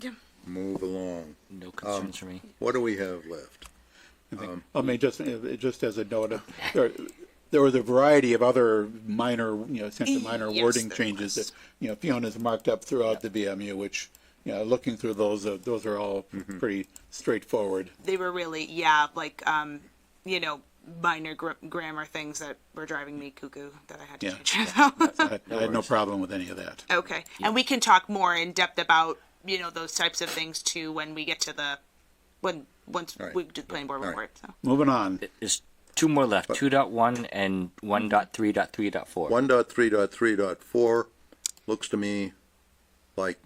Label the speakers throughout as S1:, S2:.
S1: Yeah.
S2: Move along.
S3: No concerns for me.
S2: What do we have left?
S4: I mean, just, uh, just as a note, uh, there, there was a variety of other minor, you know, essentially minor
S1: Yes,
S4: wording
S1: there
S4: changes
S1: was.
S4: that, you know, Fiona's marked up throughout the BMU, which, you know, looking through those, uh, those are all pretty straightforward.
S1: They were really, yeah, like, um, you know, minor gr- grammar things that were driving me cuckoo that I had to
S4: Yeah.
S1: change. about.
S4: I I had no problem with any of that.
S1: okay. And we can talk more in depth about, you know, those types of things too when we get to the, when, once
S2: All right.
S1: we do the planning board
S2: All right.
S1: report. So.
S4: Moving on.
S3: There's two more left, two dot one and one dot three dot three dot four.
S2: One dot three dot three dot four looks to me like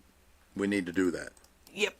S2: we need to do that.
S1: Yep.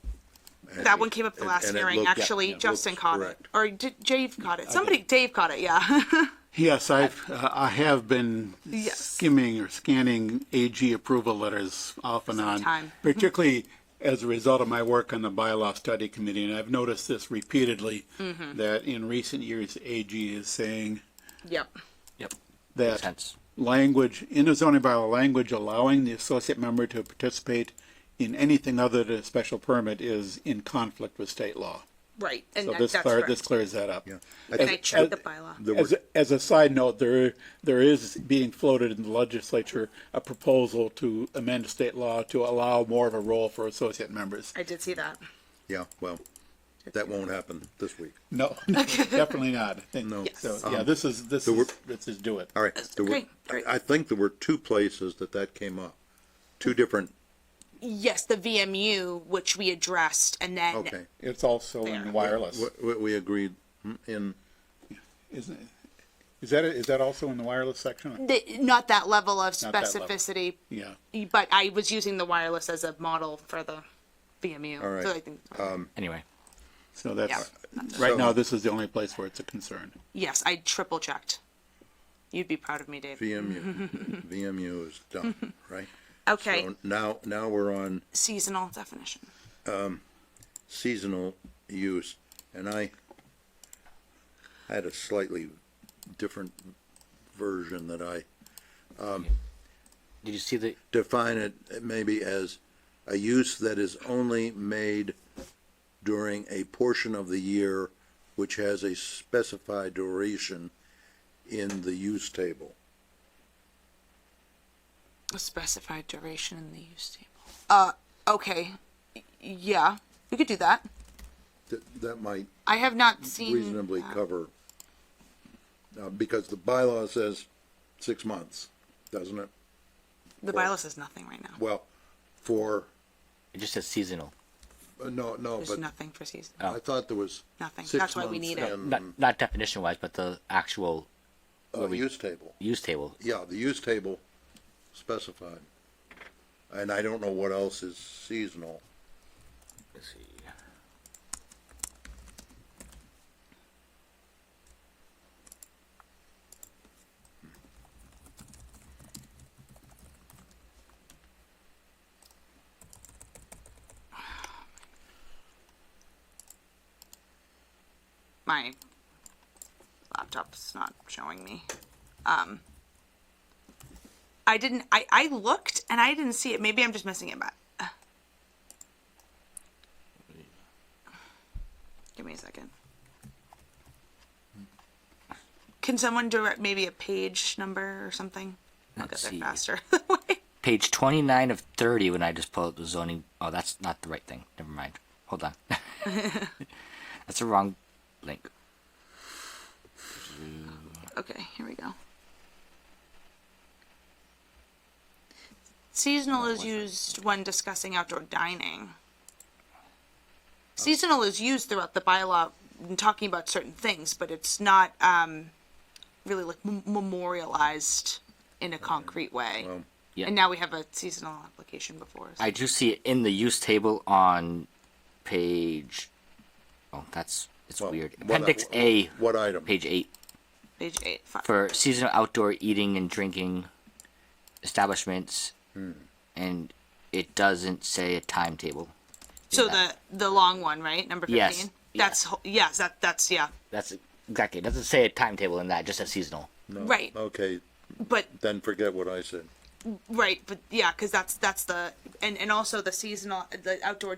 S2: And-
S1: That one came up the
S2: Uh, and-
S1: last
S2: and it
S1: hearing,
S2: looked-
S1: actually.
S2: yeah, it
S1: Justin
S2: looks
S1: caught
S2: correct.
S1: it. Or did Dave caught it. Somebody, Dave caught it, yeah.
S4: Yes, I've, uh, I have been
S1: Yes.
S4: skimming or scanning AG approval letters off and on.
S1: Sometime.
S4: Particularly as a result of my work on the bylaw study committee, and I've noticed this repeatedly,
S1: Mm-hmm.
S4: that in recent years, AG is saying
S1: yep.
S3: Yep, makes
S4: that
S3: sense.
S4: language, in a zoning bylaw, language allowing the associate member to participate in anything other than a special permit is in conflict with state law.
S1: Right. And
S4: So
S1: that,
S4: this
S1: that's
S4: clar-
S1: correct.
S4: this clears that up.
S2: Yeah.
S1: and I
S4: As-
S1: checked the
S4: as-
S1: bylaw.
S2: There
S4: As,
S2: were-
S4: a- as a side note, there, there is being floated in the legislature a proposal to amend state law to allow more of a role for associate members.
S1: I did see that.
S2: Yeah, well, that won't happen this week.
S4: No, definitely not. I think-
S2: No.
S4: So, yeah, this is, this
S2: there
S4: is,
S2: were-
S4: this is do it.
S2: All right. there were-
S1: Okay, great.
S2: I I think there were two places that that came up, two different,
S1: Yes, the VMU, which we addressed, and then
S2: okay.
S4: It's also
S1: There.
S4: in wireless.
S2: We- We, we agreed in,
S4: Isn't it? Is that, is that also in the wireless section?
S1: the, not that level of
S4: Not that level.
S1: specificity,
S4: Yeah.
S1: but I was using the wireless as a model for the VMU.
S2: All right.
S1: So I think,
S3: Anyway,
S4: So that's,
S2: So-
S4: right now, this is the only place where it's a concern.
S1: yes, I triple checked. You'd be proud of me, Dave.
S2: VMU. VMU is done, right?
S1: okay,
S2: So Now, now we're on
S1: seasonal definition.
S2: seasonal use, and I I had a slightly different version that I
S3: did you see the,
S2: define it maybe as a use that is only made during a portion of the year which has a specified duration in the use table.
S1: A specified duration in the use table. Uh, okay, Y- yeah, we could do that.
S2: That, that might
S1: I have not seen
S2: reasonably
S1: that.
S2: cover, uh, because the bylaw says six months, doesn't it?
S1: The bylaw says nothing right now.
S2: Well, for,
S3: it just says seasonal,
S2: uh, no, no,
S1: There's
S2: but
S1: nothing for season.
S2: I thought there was.
S1: Nothing.
S2: six
S1: That's why we
S2: months
S1: need it.
S2: and,
S3: Oh. not, not definition wise, but the actual
S2: uh, use table.
S3: use table.
S2: Yeah, the use table specified. And I don't know what else is seasonal.
S3: Let's see.
S1: my laptop's not showing me. Um, I didn't. I I looked and I didn't see it. Maybe I'm just missing it, but. uh. Give me a second. Can someone direct maybe a page number or something? I'll get
S3: Let's
S1: there
S3: see.
S1: faster.
S3: Page twenty-nine of thirty, when I just pull up the zoning, oh, that's not the right thing, never mind, hold on. That's the wrong link.
S1: okay, here we go. Seasonal is used when discussing outdoor dining. Seasonal is used throughout the bylaw in talking about certain things, but it's not um, really like m- memorialized in a concrete way.
S3: Yeah.
S1: And now we have a seasonal application before us.
S3: I do see it in the use table on page. Oh, that's it's
S2: Well,
S3: weird.
S2: what-
S3: Appendix A,
S2: What item?
S3: page eight,
S1: Page eight. Five.
S3: for seasonal outdoor eating and drinking establishments, and it doesn't say a timetable.
S1: so
S3: that.
S1: the the long one, right? Number fifteen.
S3: Yes, yeah.
S1: That's ho- yes. That that's yeah.
S3: That's exactly. It doesn't say a timetable in that. Just a seasonal.
S1: Right.
S2: Okay,
S1: But
S2: then forget what I said.
S1: Right, but yeah, because that's that's the and and also the seasonal the outdoor